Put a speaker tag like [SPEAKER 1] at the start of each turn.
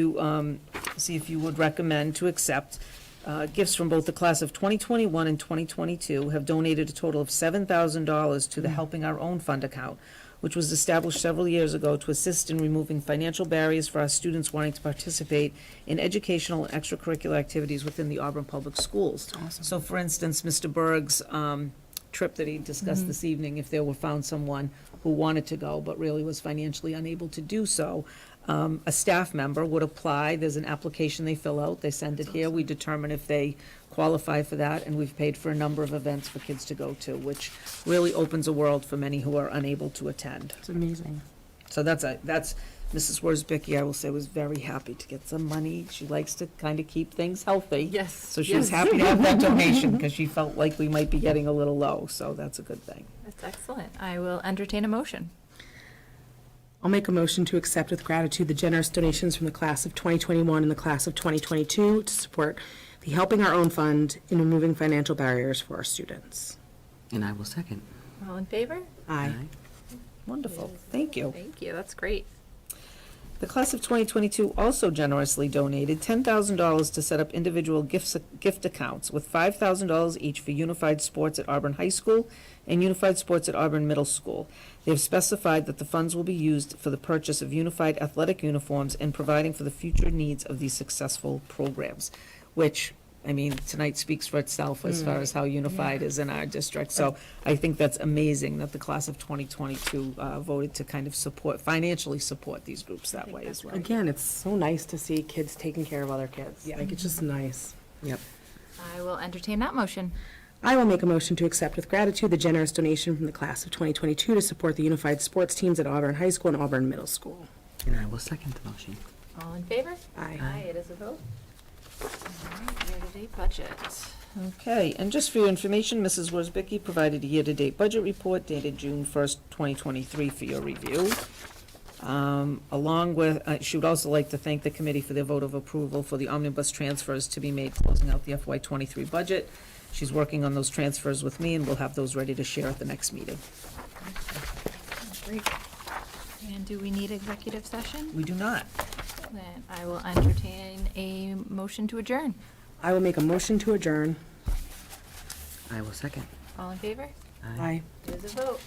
[SPEAKER 1] to um, see if you would recommend to accept uh, gifts from both the class of 2021 and 2022 have donated a total of $7,000 to the Helping Our Own Fund account, which was established several years ago to assist in removing financial barriers for our students wanting to participate in educational and extracurricular activities within the Auburn Public Schools. So for instance, Mr. Berg's um, trip that he discussed this evening, if there were found someone who wanted to go but really was financially unable to do so, um, a staff member would apply, there's an application they fill out, they send it here, we determine if they qualify for that, and we've paid for a number of events for kids to go to, which really opens a world for many who are unable to attend.
[SPEAKER 2] It's amazing.
[SPEAKER 1] So that's a, that's, Mrs. Worsbicky, I will say, was very happy to get some money. She likes to kind of keep things healthy.
[SPEAKER 2] Yes,
[SPEAKER 1] So she was
[SPEAKER 2] yes.
[SPEAKER 1] happy to have that donation because she felt like we might be getting a little low, so that's a good thing.
[SPEAKER 3] That's excellent. I will entertain a motion.
[SPEAKER 2] I'll make a motion to accept with gratitude the generous donations from the class of 2021 and the class of 2022 to support the Helping Our Own Fund in removing financial barriers for our students.
[SPEAKER 4] And I will second.
[SPEAKER 3] All in favor?
[SPEAKER 2] Aye.
[SPEAKER 1] Wonderful, thank you.
[SPEAKER 3] Thank you. That's great.
[SPEAKER 1] The class of 2022 also generously donated $10,000 to set up individual gifts, gift accounts, with $5,000 each for Unified Sports at Auburn High School and Unified Sports at Auburn Middle School. They have specified that the funds will be used for the purchase of unified athletic uniforms and providing for the future needs of these successful programs, which, I mean, tonight speaks for itself as far as how unified is in our district. So I think that's amazing that the class of 2022 uh, voted to kind of support, financially support these groups that way as well.
[SPEAKER 2] Again, it's so nice to see kids taking care of other kids.
[SPEAKER 1] Yeah.
[SPEAKER 2] Like, it's just nice.
[SPEAKER 4] Yep.
[SPEAKER 3] I will entertain that motion.
[SPEAKER 2] I will make a motion to accept with gratitude the generous donation from the class of 2022 to support the unified sports teams at Auburn High School and Auburn Middle School.
[SPEAKER 4] And I will second the motion.
[SPEAKER 3] All in favor?
[SPEAKER 2] Aye.
[SPEAKER 3] Aye, it is a vote. All right, year-to-date budget.
[SPEAKER 1] Okay, and just for your information, Mrs. Worsbicky provided a year-to-date budget report dated June 1st, 2023 for your review. Um, Along with, uh, she would also like to thank the committee for their vote of approval for the omnibus transfers to be made closing out the FY '23 budget. She's working on those transfers with me, and we'll have those ready to share at the next meeting.
[SPEAKER 3] Great. And do we need executive session?
[SPEAKER 1] We do not.
[SPEAKER 3] Then I will entertain a motion to adjourn.
[SPEAKER 2] I will make a motion to adjourn.
[SPEAKER 4] I will second.
[SPEAKER 3] All in favor?
[SPEAKER 2] Aye.
[SPEAKER 3] It is a vote.